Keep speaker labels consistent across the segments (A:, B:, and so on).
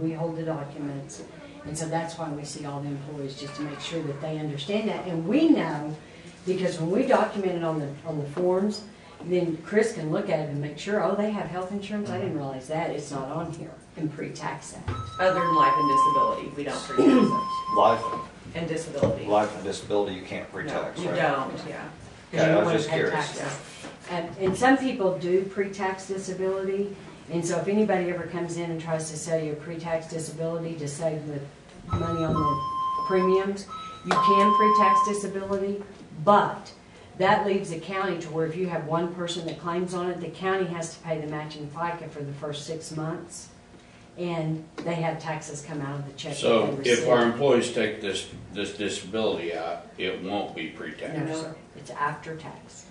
A: We hold the documents, and so that's why we see all the employees, just to make sure that they understand that. And we know, because when we document it on the, on the forms, then Chris can look at it and make sure, oh, they have health insurance, I didn't realize that, it's not on here, and pre-tax that.
B: Other than life and disability, we don't pre-tax those.
C: Life,
B: And disability.
C: life and disability, you can't pre-tax,
B: No,
C: right?
B: You don't, yeah.
A: because
C: Okay,
A: you
C: I
A: don't
C: was
A: want to
C: just
A: pay
C: curious.
A: taxes. And, and some people do pre-tax disability, and so if anybody ever comes in and tries to sell you a pre-tax disability to save the money on the premiums, you can pre-tax disability, but that leaves the county to where if you have one person that claims on it, the county has to pay the matching FICA for the first six months, and they have taxes come out of the check. that they
D: So if
A: receive.
D: our employees take this, this disability out, it won't be pre-tax.
A: No, sir, it's after tax.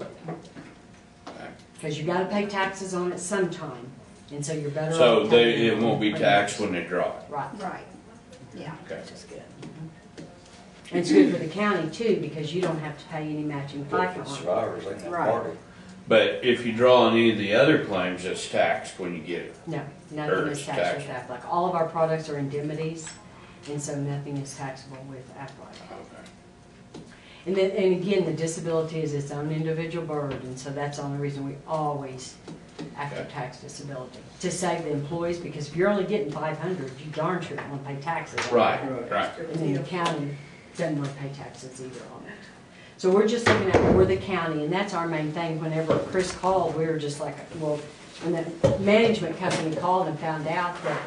D: Okay.
A: Because you gotta pay taxes on it sometime, and so you're better off.
D: So they,
A: taking
D: it won't be
A: on
D: taxed when
A: premiums.
D: they draw it.
A: Right,
E: Right, yeah.
D: Okay.
E: Which is good.
A: and it's good for the county too, because you don't have to pay any matching
C: But
A: FICA
C: for
A: on it.
C: survivors, they can't
A: Right.
C: party.
D: But if you draw on any of the other claims, it's taxed when you get it.
A: No, nothing is
D: Or
A: taxed with
D: tax.
A: Aflac, all of our products are indemnities, and so nothing is taxable with Aflac. And then, and again, the disability is its own individual burden, and so that's the only reason we always after tax disability, to save the employees, because if you're only getting five hundred, you darn sure don't wanna pay taxes. on that.
D: Right, right.
A: And then the county doesn't want to pay taxes either on it. So we're just looking at, we're the county, and that's our main thing. Whenever Chris called, we were just like, well, when the management company called and found out that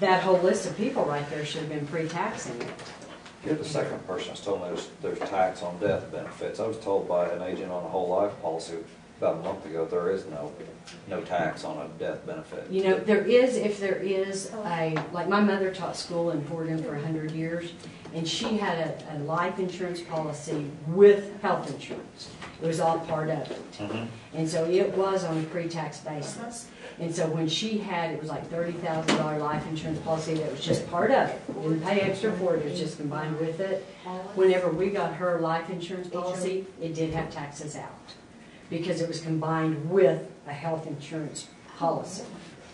A: that whole list of people right there should have been pre-taxing it.
C: You're the second person that's told me there's, there's tax on death benefits. I was told by an agent on a whole life policy about a month ago, there is no, no tax on a death benefit.
A: You know, there is, if there is a, like, my mother taught school in Fort Inn for a hundred years, and she had a, a life insurance policy with health insurance. It was all part of
C: Mm-hmm.
A: it. And so it was on a pre-tax basis. And so when she had, it was like thirty thousand dollar life insurance policy that was just part of it. Didn't pay extra for it, it was just combined with it. Whenever we got her life insurance policy, it did have taxes out because it was combined with a health insurance policy.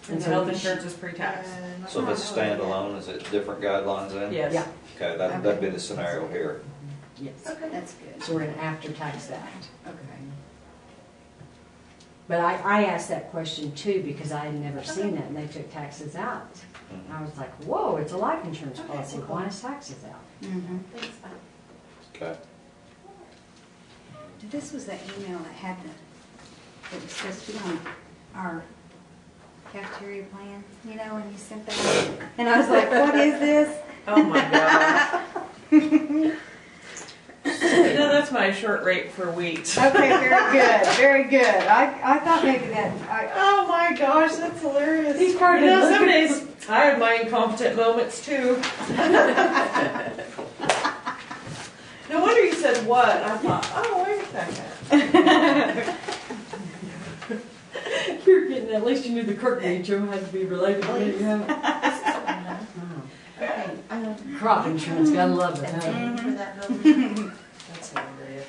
B: And
A: so
B: so health
A: she-
B: insurance is pre-tax.
C: So if it's standalone, is it different guidelines then?
A: Yeah,
B: Yes.
C: Okay, that, that'd be the scenario here.
A: yes.
E: Okay, that's good,
A: So we're gonna after-tax that.
E: okay.
A: But I, I asked that question too because I had never seen that and they took taxes out. And I was like, whoa, it's a life insurance policy, why is taxes out?
E: Mm-hmm.
C: Okay.
E: This was that email that had the, it was supposed to be on our cafeteria plan, you know, and you sent that. And I was like, what is this?
B: Oh my gosh. You know, that's my short rate for wheat.
E: Okay, very good, very good. I, I thought maybe that, I,
B: Oh my gosh, that's hilarious.
A: He's probably
B: You know, some
A: looking-
B: days I have my incompetent moments too. No wonder you said what, I thought, oh, wait a second.
A: You're getting, at least you knew the Kirk name, Joe had to be related to it, you know? Crop insurance, gotta love it, huh?
B: That's hilarious.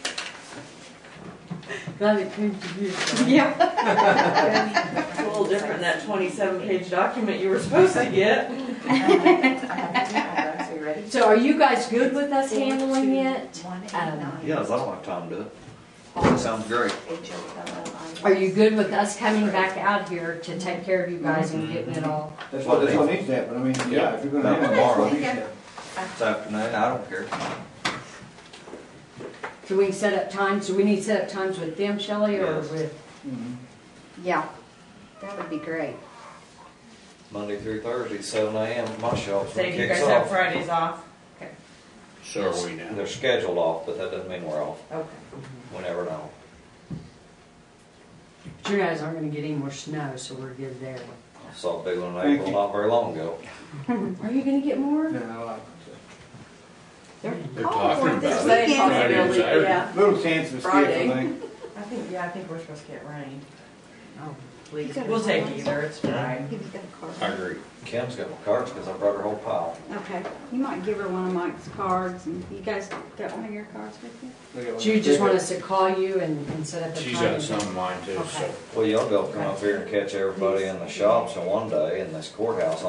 A: Glad it came to you.
E: yeah,
B: It's a little different than that twenty-seven page document you were supposed to get.
A: So are you guys good with us handling it?
B: um,
C: Yeah, 'cause I don't have time to do it. Sounds great.
A: Are you good with us coming back out here to take care of you guys and getting it all?
F: That's what, that's what needs to happen, I mean, yeah, if you're gonna
C: Not
F: have it, that's
C: tomorrow.
F: what needs to happen.
C: This afternoon, I don't care.
A: So we can set up times, do we need to set up times with them, Shelley, or
C: Yes.
A: with?
E: yeah, that would be great.
C: Monday through Thursday, seven AM, at my shop's when
B: Say
C: it
B: you
C: kicks
B: guys have
C: off.
B: Fridays off.
D: So are we now.
C: They're scheduled off, but that doesn't mean we're off,
B: Okay.
C: whenever and all.
A: But you guys aren't gonna get any more snow, so we're good there.
C: I Saw a big one in
F: Thank
C: April
F: you.
C: not very long ago.
A: Are you gonna get more?
F: Yeah, I like it.
D: They're talking about it.
E: This weekend.
D: Friday, Saturday.
B: Yeah,
F: Little chance of escape, I
B: Friday.
F: think.
B: I think, yeah, I think we're supposed to get rain.
A: Oh,
B: please, we'll take either, it's fine.
E: Give you that
D: I
E: card.
D: agree.
C: Kim's got my cards because I brought her whole pile.
E: Okay, you might give her one of Mike's cards, and you guys got one of your cards with you?
A: Do you just want us to call you and, and set up a time?
D: She's got some of mine too, so.
A: Okay.
C: Well, y'all go come up here and catch everybody in the shops in one day in this courthouse